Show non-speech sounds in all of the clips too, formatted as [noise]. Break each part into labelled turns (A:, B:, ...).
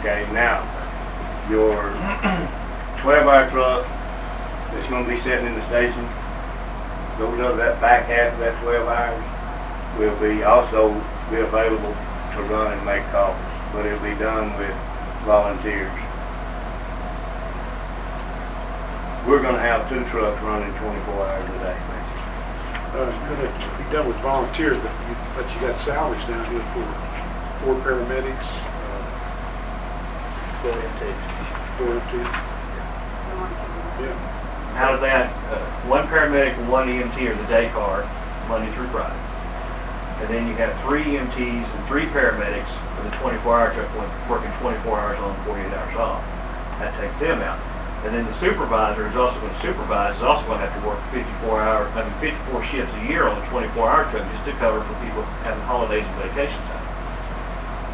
A: Okay, now, your twelve-hour truck that's gonna be sitting in the station, those of that back half of that twelve hours will be, also be available to run and make calls, but it'll be done with volunteers. We're gonna have two trucks running twenty-four hours a day,
B: Uh, it's gonna be done with volunteers, but you, but you got salaries down here for four paramedics, uh,
C: Go ahead,
B: four MT. Yeah,
C: Tate. Out of that, uh, one paramedic and one E EMT are the day car, Monday through Friday. And then you have three EMTs and three paramedics for the 24-hour truck, work- working 24 hours on, 48 hours off. That takes them out. And then the supervisor is also going to supervise, is also going to have to work 54 hours, I mean, 54 shifts a year on the 24-hour truck just to cover for people having holidays and vacation time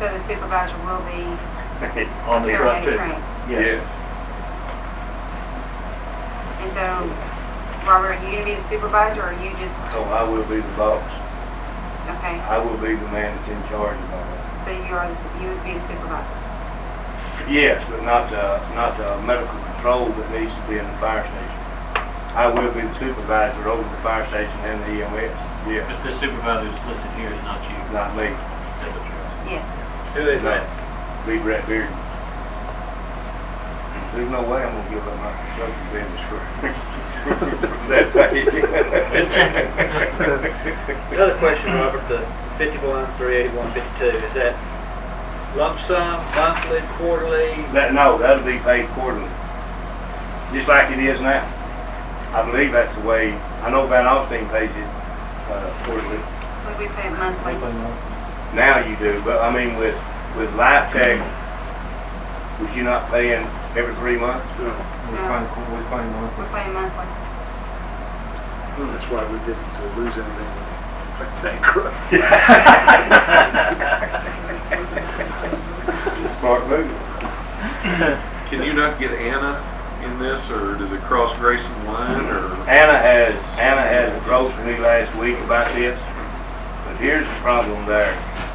D: So the supervisor will be
A: basically. [laughs]
C: on the truck
D: paramedic
C: too.
D: trained.
C: Yes.
D: And so, Robert, are you gonna be the supervisor or are you just,
A: So I will be the boss,
D: okay,
A: I will be the man that's in charge of all that.
D: so you are, the su- you would be the supervisor?
A: Yes, but not, uh, not, uh, medical control that needs to be in the fire station. I will be the supervisor over the fire station and the EMS, yes,
C: The supervisor is listed here is not you.
A: not me.
D: Yes.
C: Who is
A: No, Be Brett Bearden. There's no way I'm gonna give up my construction business for [laughs] that pay.
E: The other question, Robert, the 51, 381, 52, is that lump sum, monthly, quarterly?
A: [laughs] That, no, that'll be paid quarterly, just like it is now. I believe that's the way, I know Van Alstine pays it, uh, quarterly.
D: Would we pay it monthly?
A: Now you do, but I mean with, with Life Tech, was you not paying every three months?
B: no,
F: We find, we find one.
D: We're paying monthly.
B: that's why we didn't uh, lose anything. when we went Bankrupt.
A: Smart move.
G: Can you not get Anna in this, or does it cross Grayson line, or?
A: Anna has, Anna has approached me last week about this, but here's the problem there.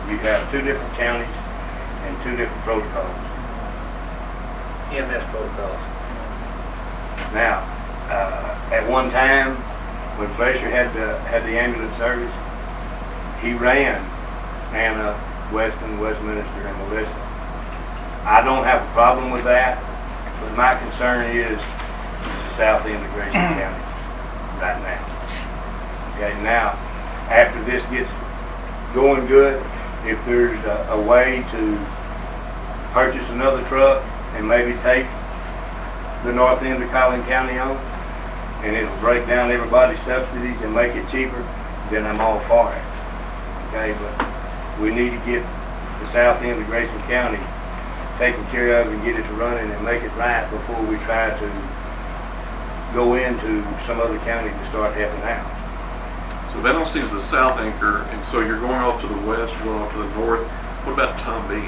A: You have two different counties and two different protocols.
E: EMS protocols.
A: Now, uh, at one time, when Fletcher had the, had the ambulance service, he ran Anna, Weston, Westminster, and Melissa. I don't have a problem with that, but my concern is the south end of Grayson County right now. Okay, now, after this gets going good, if there's a, a way to purchase another truck and maybe take the north end of Collin County on, and it'll break down everybody's subsidies and make it cheaper, then I'm all for it. Okay, but we need to get the south end of Grayson County taken care of and get it to running and make it right before we try to go into some other county to start helping out.
G: So Van Alstine's the south anchor, and so you're going off to the west, you're going off to the north. What about Tom B?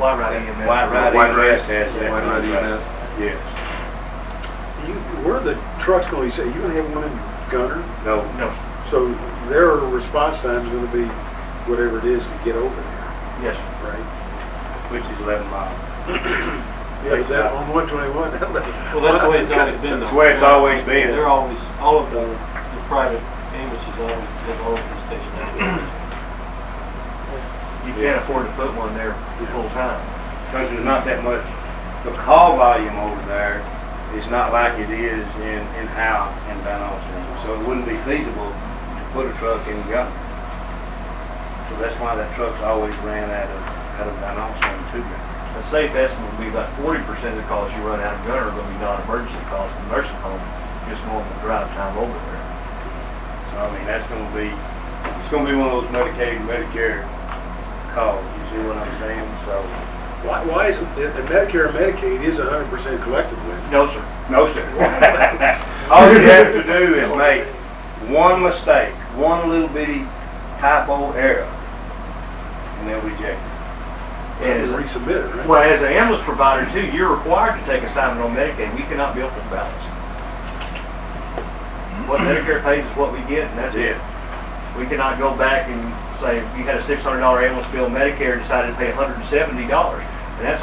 C: Why E ride EMS?
A: White Rod
G: White
A: EMS
G: Rod-
A: has that.
G: White Rod EMS.
A: Yes.
B: You, where are the trucks gonna be, set? you gonna have one in Gunner?
A: No,
C: No,
B: So their response time is gonna be whatever it is to get over there,
C: yes.
B: right?
A: which is eleven miles.
B: Yeah, that, on one twenty-one, that,
H: Well, that's the way it's always been though.
A: That's where it's always been.
H: They're always, all of the, the private ambulances always, they've always been stationed
C: You can't afford to put one there full time.
A: because there's not that much, the call volume over there is not like it is in, in Howe and Van Alstine. So it wouldn't be feasible to put a truck in Gunner. So that's why that truck's always ran out of, out of Van Alstine to Gunner.
C: A safe estimate would be about forty percent of the calls you run out of gunner are gonna be non-emergency calls from nursing home, just normal drive time over there.
A: So I mean, that's gonna be, it's gonna be one of those Medicaid, Medicare calls, you see what I'm saying? So,
B: why, why isn't, and Medicare and Medicaid is hundred percent collected with?
C: No, sir.
A: no sir. [laughs] All you have to do is make one mistake, one little bitty typo error, and then reject it.
B: And
C: As,
B: resubmit it, right?
C: well, as an ambulance provider too, you're required to take assignment on Medicaid. We cannot bill for the balance. What Medicare pays is what we get, and that's
A: That's
C: it.
A: it.
C: We cannot go back and say, you had a six hundred dollar ambulance bill, Medicare decided to pay hundred and seventy dollars. And that's